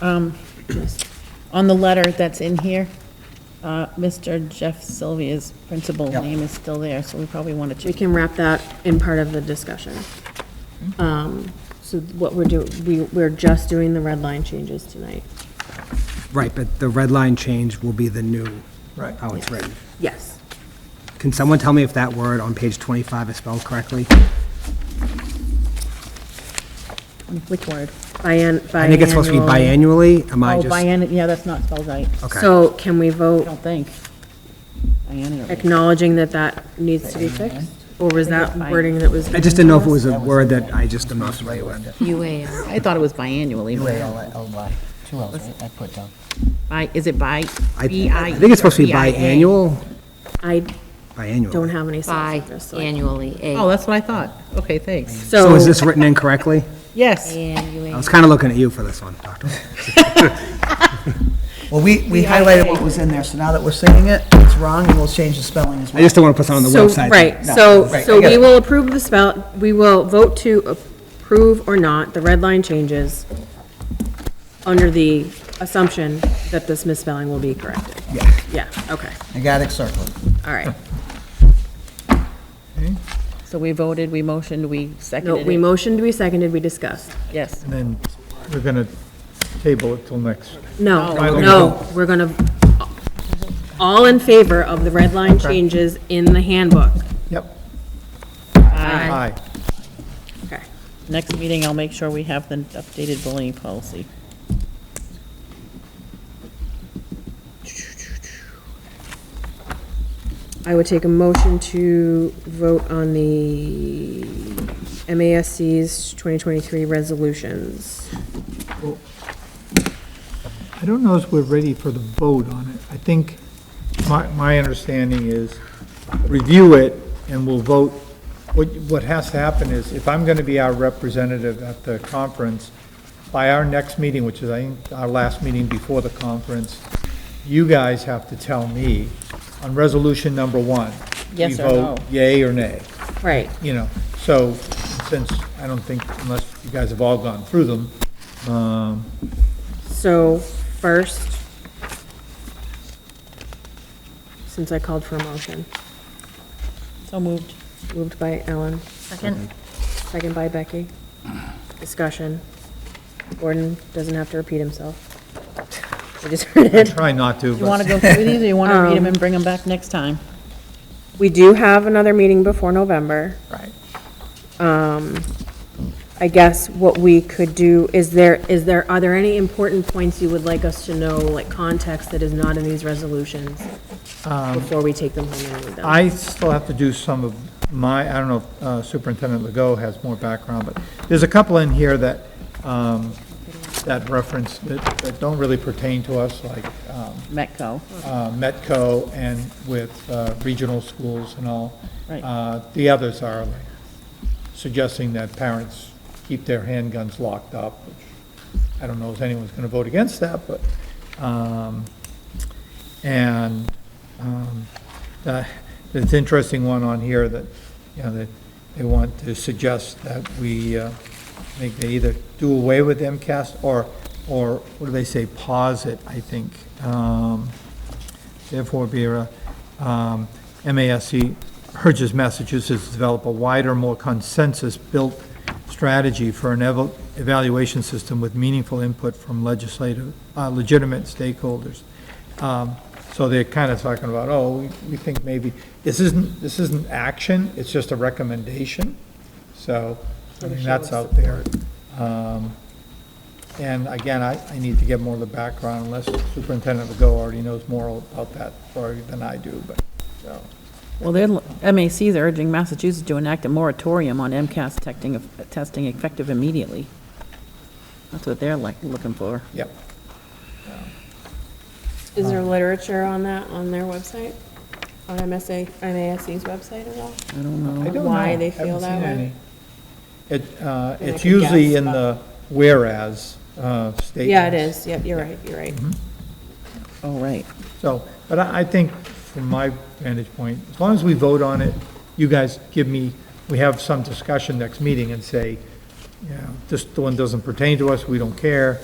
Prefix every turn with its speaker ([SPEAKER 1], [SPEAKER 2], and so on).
[SPEAKER 1] um, on the letter that's in here, uh, Mr. Jeff Sylvia's principal
[SPEAKER 2] Yeah.
[SPEAKER 1] name is still there, so we probably want to
[SPEAKER 3] We
[SPEAKER 1] check.
[SPEAKER 3] can wrap that in part of the discussion. Um, So what we're doing, we, we're just doing the red line changes tonight.
[SPEAKER 4] Right, but the red line change will be the new,
[SPEAKER 2] Right.
[SPEAKER 4] how it's written.
[SPEAKER 3] Yes.
[SPEAKER 4] Can someone tell me if that word on page 25 is spelled correctly?
[SPEAKER 1] Which word?
[SPEAKER 3] Bian,
[SPEAKER 4] I think it's supposed to be biannually, am I
[SPEAKER 1] Oh,
[SPEAKER 4] just?
[SPEAKER 1] biennial, yeah, that's not spelled right, I
[SPEAKER 4] Okay.
[SPEAKER 3] So can we vote
[SPEAKER 1] don't think. Biennial.
[SPEAKER 3] acknowledging that that needs to be fixed? Or was that wording that was?
[SPEAKER 4] I just didn't know if it was a word that I just am not familiar with.
[SPEAKER 5] UAL.
[SPEAKER 1] I thought it was biannually. but-
[SPEAKER 2] UALY, two L's, right? I put down.
[SPEAKER 1] Bi- Is it bi?
[SPEAKER 4] I
[SPEAKER 1] B-I-
[SPEAKER 4] I think it's supposed to be
[SPEAKER 1] B-I-A.
[SPEAKER 4] biannual,
[SPEAKER 3] I
[SPEAKER 4] biannual.
[SPEAKER 3] don't have any sense of this. so I-
[SPEAKER 5] Biannually,
[SPEAKER 1] Oh,
[SPEAKER 5] A.
[SPEAKER 1] that's what I thought. Okay, thanks.
[SPEAKER 4] So
[SPEAKER 3] So,
[SPEAKER 4] is this written incorrectly?
[SPEAKER 1] Yes.
[SPEAKER 4] I
[SPEAKER 5] Biannually.
[SPEAKER 4] was kind of looking at you for this one, Dr.
[SPEAKER 2] Well, we, we highlighted what was in there, so now that we're seeing it, it's wrong, and we'll change the spelling as
[SPEAKER 4] I
[SPEAKER 2] well.
[SPEAKER 4] just don't want to put something on the
[SPEAKER 3] so,
[SPEAKER 4] website. that-
[SPEAKER 3] right,
[SPEAKER 2] No,
[SPEAKER 3] so,
[SPEAKER 2] right, I
[SPEAKER 3] so
[SPEAKER 2] get
[SPEAKER 3] we
[SPEAKER 2] it.
[SPEAKER 3] will approve the spell, we will vote to approve or not the red line changes under the assumption that this misspelling will be corrected.
[SPEAKER 2] Yeah,
[SPEAKER 3] Yeah, okay,
[SPEAKER 2] I got it circled.
[SPEAKER 3] all right.
[SPEAKER 1] So we voted, we motioned, we
[SPEAKER 3] No,
[SPEAKER 1] seconded
[SPEAKER 3] we
[SPEAKER 1] it.
[SPEAKER 3] motioned, we seconded, we discussed.
[SPEAKER 1] Yes.
[SPEAKER 6] And then we're going to table it till next.
[SPEAKER 3] No,
[SPEAKER 1] No.
[SPEAKER 3] no, we're gonna, all in favor of the red line changes in the handbook.
[SPEAKER 6] Yep. Aye.
[SPEAKER 3] Okay.
[SPEAKER 1] Next meeting, I'll make sure we have the updated bullying policy.
[SPEAKER 3] I would take a motion to vote on the MASC's 2023 resolutions.
[SPEAKER 6] I don't know if we're ready for the vote on it. I think my, my understanding is review it and we'll vote. What, what has to happen is if I'm going to be our representative at the conference, by our next meeting, which is I think our last meeting before the conference, you guys have to tell me on resolution number one.
[SPEAKER 1] Yes
[SPEAKER 6] we
[SPEAKER 1] or no.
[SPEAKER 6] vote Yay or nay.
[SPEAKER 3] Right.
[SPEAKER 6] you know, so, since, I don't think, unless you guys have all gone through them, um,
[SPEAKER 3] So first, since I called for a motion,
[SPEAKER 1] So moved.
[SPEAKER 3] moved by Ellen,
[SPEAKER 5] Second.
[SPEAKER 3] second by Becky. Discussion. Gordon doesn't have to repeat himself. We just heard it.
[SPEAKER 6] try not to,
[SPEAKER 1] You want to
[SPEAKER 6] but
[SPEAKER 1] go through these, or you want to read them and bring them back next time?
[SPEAKER 3] We do have another meeting before November.
[SPEAKER 6] Right.
[SPEAKER 3] Um, I guess what we could do, is there, is there, are there any important points you would like us to know, like context that is not in these resolutions? Before we take them home and read them?
[SPEAKER 6] I still have to do some of my, I don't know if uh, Superintendent Legault has more background, but there's a couple in here that, um, that reference, that, that don't really pertain to us, like, um,
[SPEAKER 1] Metco.
[SPEAKER 6] uh, Metco and with uh, regional schools and all.
[SPEAKER 1] Right.
[SPEAKER 6] Uh, The others are like suggesting that parents keep their handguns locked up, which I don't know if anyone's going to vote against that, but, um, and um, uh, there's an interesting one on here that, you know, that they want to suggest that we, uh, I think they either do away with MCAS or, or what do they say, pause it, I think. Um, Therefore, Vera, um, MASC urges Massachusetts to develop a wider, more consensus-built strategy for an eval- evaluation system with meaningful input from legislative, uh, legitimate stakeholders. Um, So they're kind of talking about, oh, we- we think maybe, this isn't, this isn't action, it's just a recommendation. So, I mean, that's out there. Um, And again, I, I need to get more of the background unless Superintendent Legault already knows more about that story than I do, but, so.
[SPEAKER 1] Well, they're, MAC is urging Massachusetts to enact a moratorium on MCAS testing, testing effective immediately. That's what they're like, looking for.
[SPEAKER 6] Yep.
[SPEAKER 3] Is there literature on that on their website? On MSA, MASC's website at all?
[SPEAKER 1] I don't know.
[SPEAKER 6] I don't
[SPEAKER 3] Why
[SPEAKER 6] know.
[SPEAKER 3] they feel
[SPEAKER 6] Haven't
[SPEAKER 3] that
[SPEAKER 6] seen
[SPEAKER 3] way?
[SPEAKER 6] any. It,
[SPEAKER 3] And
[SPEAKER 6] uh,
[SPEAKER 3] I
[SPEAKER 6] it's
[SPEAKER 3] could
[SPEAKER 6] usually
[SPEAKER 3] guess,
[SPEAKER 6] in the whereas uh, statements.
[SPEAKER 3] Yeah, it is. Yep, you're right, you're right.
[SPEAKER 1] Oh, right.
[SPEAKER 6] So, but I, I think from my vantage point, as long as we vote on it, you guys give me, we have some discussion next meeting and say, you know, this one doesn't pertain to us, we don't care,